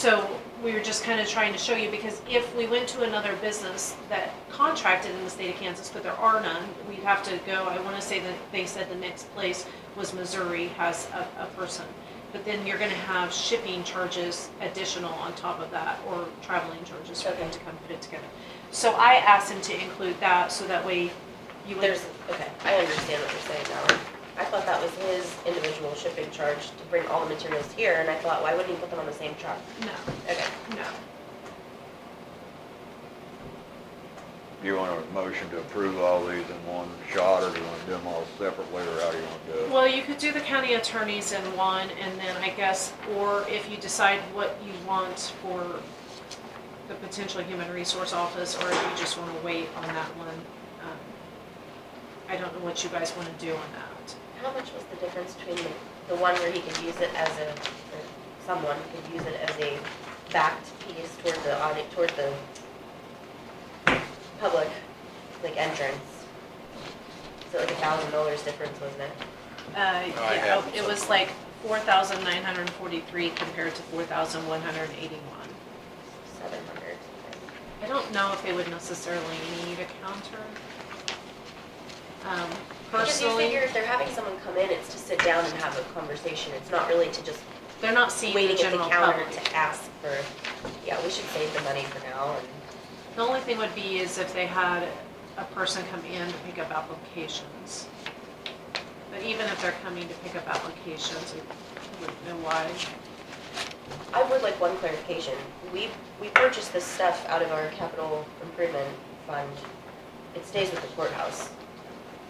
So we were just kind of trying to show you, because if we went to another business that contracted in the state of Kansas, but there are none, we'd have to go, I want to say that they said the next place was Missouri has a, a person. But then you're gonna have shipping charges additional on top of that, or traveling charges for them Okay. to come put it together. So I asked him to include that, so that way you would. There's, okay, I understand what you're saying now. I thought that was his individual shipping charge to bring all the materials here, and I thought, why wouldn't he put them on the same truck? No, Okay, no. Do you want a motion to approve all these in one shot, or do you want to do them all separately, or how do you want to do it? Well, you could do the county attorneys in one, and then I guess, or if you decide what you want for the potential human resource office, or if you just want to wait on that one. um, I don't know what you guys want to do on that. how much was the difference between the, the one where he could use it as a, or someone could use it as a backed piece toward the audit, toward the public, like entrance? So like a thousand dollars difference, wasn't it? Uh, I yeah, have it was like four thousand nine hundred and forty-three compared to four thousand one hundred and eighty-one. Seven hundred something. I don't know if they would necessarily need a counter. Um, Because you Personally, figure if they're having someone come in, it's to sit down and have a conversation, it's not really to just they're not seeing the waiting at the general counter public. to ask for, yeah, we should save the money for now and. The only thing would be is if they had a person come in to pick up applications. But even if they're coming to pick up applications, I wouldn't know why. I would like one clarification, we, we purchased this stuff out of our capital improvement fund, it stays with the courthouse.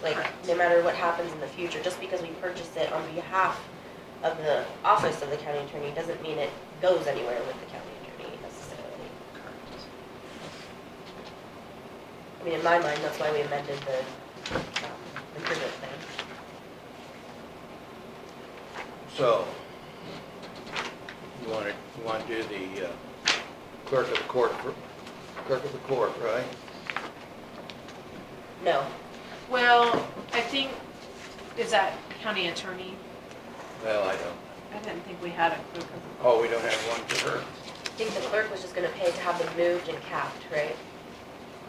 Like, Correct. no matter what happens in the future, just because we purchased it on behalf of the office of the county attorney, doesn't mean it goes anywhere with the county attorney necessarily. I mean, in my mind, that's why we amended the um, improvement plan. So, you want to, you want to do the uh, clerk of the court, fir- clerk of the court, right? No, Well, I think, is that county attorney? Well, I don't, I didn't think we had a group of, oh, we don't have one for her. I think the clerk was just gonna pay to have them moved and capped, right?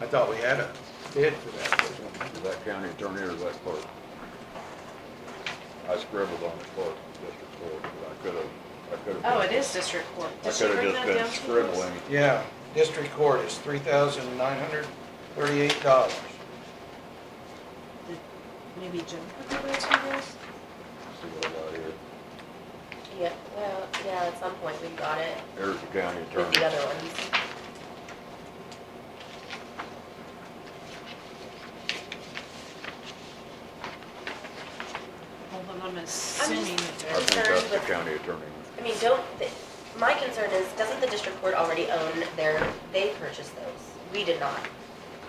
I thought we had a bid for that. wasn't we? Is that county attorney or is that clerk? I scribbled on the clerk, district clerk, but I could have, I could have. oh, it is district court. I Did she could bring have that down just to been us? scribbling. Yeah, district court is three thousand nine hundred thirty-eight dollars. Maybe Jim could do that to us? See what I got here. Yeah, well, yeah, at some point we got it Here's the county with the attorney. other ones. Hold on, I'm assuming that I there's, think that's the county attorney. I mean, don't, th- my concern is, doesn't the district court already own their, they purchased those? We did not.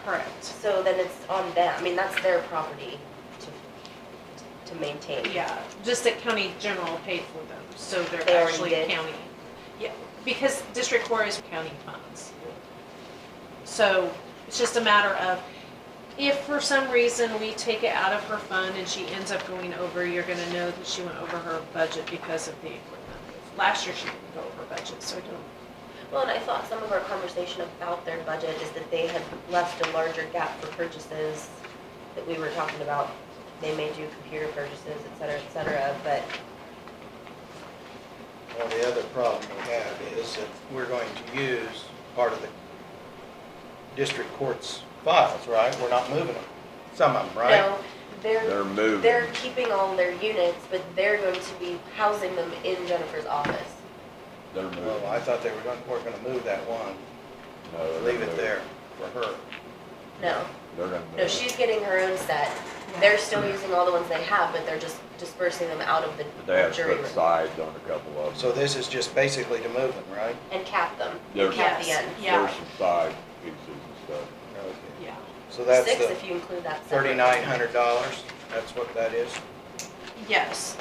correct. So then it's on them, I mean, that's their property to, to maintain. Yeah, just that county general paid for them, so they're They already actually did? county. Yeah, because district court is county funds. So it's just a matter of, if for some reason we take it out of her fund and she ends up going over, you're gonna know that she went over her budget because of the equipment. Last year she didn't go over budget, so I don't, Well, and I thought some of our conversation about their budget is that they had left a larger gap for purchases that we were talking about. They may do computer purchases, et cetera, et cetera, but Well, the other problem we have is that we're going to use part of the district court's files, right? We're not moving them, some of them, right? no, They're they're, moving. they're keeping all their units, but they're going to be housing them in Jennifer's office. They're Well, I moving. thought they were going, we're going to move that one, No, they're leave it moving. there for her. No, They're not no, moving. she's getting her own set. They're still using all the ones they have, but they're just dispersing them out of the They have jury put room sides on a couple of them. So this is just basically to move them, right? and cap them, There's- cap the Yes. end. Yeah. There's some side pieces and stuff. Okay. yeah. So that's Six the if you include that separate. thirty-nine hundred dollars, that's what that is? Yes,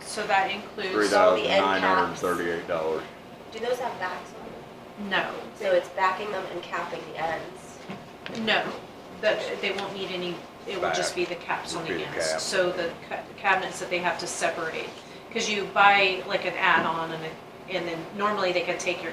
so that Three includes, all thousand the end nine hundred and caps. thirty-eight dollars. Do those have backs on them? no, So it's backing them and capping the ends. no, that, they won't need any, it will just be the caps on Would the be the ends. cap. So the ca- cabinets that they have to separate, because you buy like an add-on and, it- and then normally they can take your